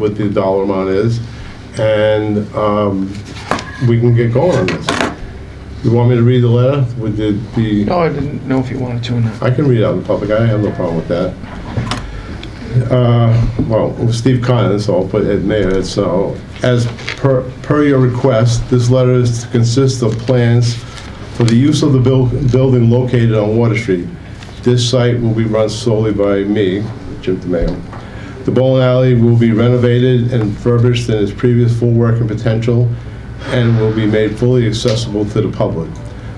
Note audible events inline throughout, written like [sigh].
what the dollar amount is, and um, we can get going on this. You want me to read the letter with the, the? No, I didn't know if you wanted to or not. I can read it out in public, I have no problem with that. Uh, Well, it was Steve Conlon, so I'll put it in there, so, as per, per your request, this letter is to consist of plans for the use of the buil- building located on Water Street. This site will be run solely by me, Jim DeMayo. The bowling alley will be renovated and refurbished in its previous full working potential and will be made fully accessible to the public.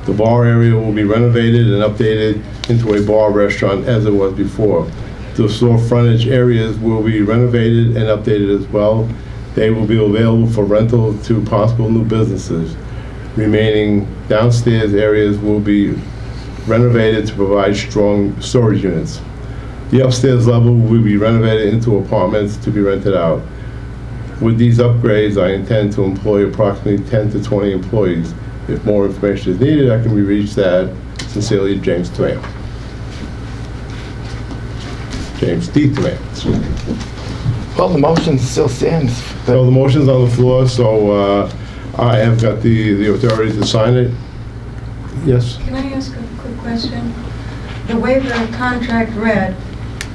The bar area will be renovated and updated into a bar restaurant as it was before. The store frontage areas will be renovated and updated as well. They will be available for rental to possible new businesses. Remaining downstairs areas will be renovated to provide strong storage units. The upstairs level will be renovated into apartments to be rented out. With these upgrades, I intend to employ approximately 10 to 20 employees. If more information is needed, I can be reached at sincerely, James Tamayo. James D. Tamayo. Well, the motion still stands. So the motion's on the floor, so uh, I have got the the authority to sign it. Yes? Can I ask a quick question? The way the contract read,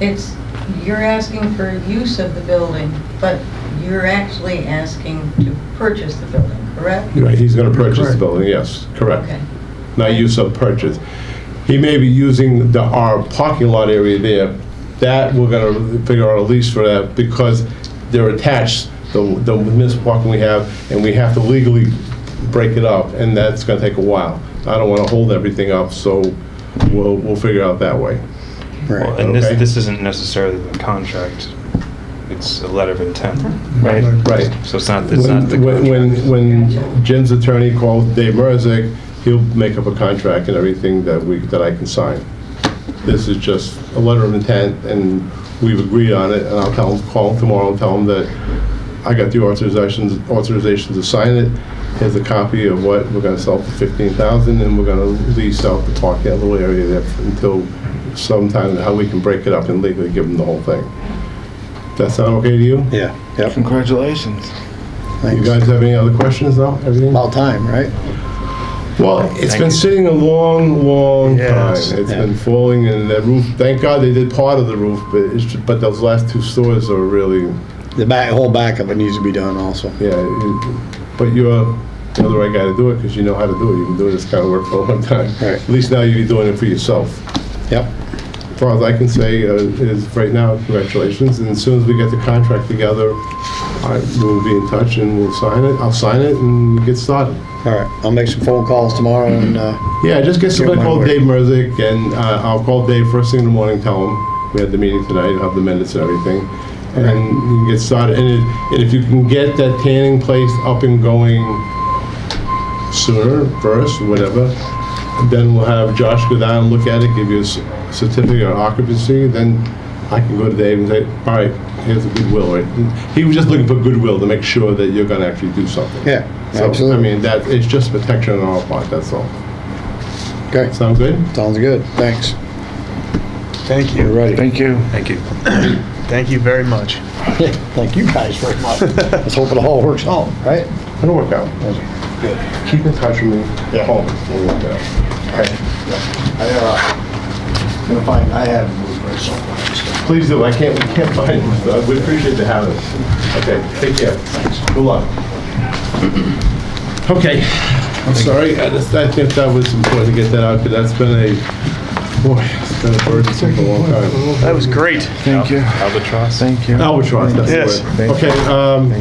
it's, you're asking for use of the building, but you're actually asking to purchase the building, correct? Right, he's going to purchase the building, yes, correct. Okay, not use of purchase. He may be using the, our parking lot area there. That, we're gonna figure out a lease for that because they're attached, the, the municipal parking we have, and we have to legally break it up, and that's gonna take a while. I don't wanna hold everything up, so we'll, we'll figure it out that way. Well, Right. and Okay. this, this isn't necessarily the contract, it's a letter of intent, Right. Right. so it's not, it's not the When, when- contract. when, when Jim's attorney calls Dave Merzick, he'll make up a contract and everything that we, that I can sign. This is just a letter of intent, and we've agreed on it, and I'll tell him, call him tomorrow, and tell him that I got the authorization, authorization to sign it. Here's a copy of what we're gonna sell for fifteen thousand, and we're gonna lease out the park, that little area there until sometime, how we can break it up and legally give them the whole thing. That sound okay to you? Yeah, yep, Congratulations. You thanks. guys have any other questions now? Everything? About time, right? Well, it's Thank been you. sitting a long, long time. Yes. It's been falling and the roof, thank God they did part of the roof, but it's, but those last two stories are really, The back, whole back of it needs to be done also. yeah. it- But you're, you're the right guy to do it because you know how to do it. You've been doing this kind of work for a long time. Right. At least now you're doing it for yourself. Yep, As far as I can say uh, is right now, congratulations. And as soon as we get the contract together, I, we'll be in touch and we'll sign it. I'll sign it and get started. all right, I'll make some phone calls tomorrow and, uh, Yeah, just get somebody Yeah, called my Dave Merzick, and uh, I'll call Dave first thing in the morning, tell him we had the meeting tonight, I'll have the minutes and everything. And then you can get started, and if, and if you can get that tanning place up and going sooner, first, whatever, then we'll have Josh go down and look at it, give you a s- certificate of occupancy, then I can go to Dave and say, all right, here's the goodwill, right? He was just looking for goodwill to make sure that you're gonna actually do something. yeah, So, I absolutely. mean, that, it's just protection on our part, that's all. Okay, Sound good? sounds good, thanks. Thank We're you. ready. Thank you. Thank you. Thank you very much. [laughs] Thank you guys very [laughs] much. Let's hope it all works out, right? It'll work out. Keep in touch with me. Yeah. Call me. We'll work it out. I, uh, gonna find, I have blueprints somewhere. Please do. I can't, we can't find it. so We appreciate the having us. Okay, take care. Good luck. [clears throat] Okay, I'm sorry. I just, I think that was important to get that out, because that's been a, boy, it's been a burden for a long time. That was great. Thank you. Albatross? Thank you. Albatross, that's Yes. the word. Okay, um,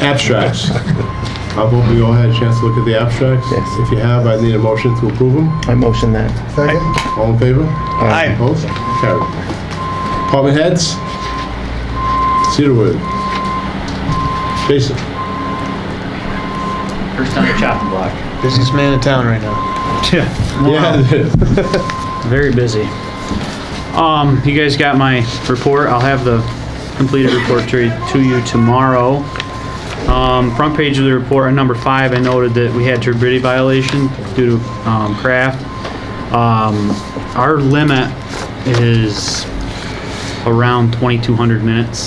abstracts. I hope we all had a chance to look at the abstracts. Yes. If you have, I need a motion to approve them. I motion that. Second? All in favor? Aye. Opposed? Carried. Department heads? Cedarwood. Jason? First on the chopping block. Busiest man in town right now. Yeah. Yeah, [laughs] it is. Very busy. Um, you guys got my report. I'll have the completed report to, to you tomorrow. Um, front page of the report, on number five, I noted that we had turbidity violation due to, um, craft. Um, our limit is around 2,200 minutes.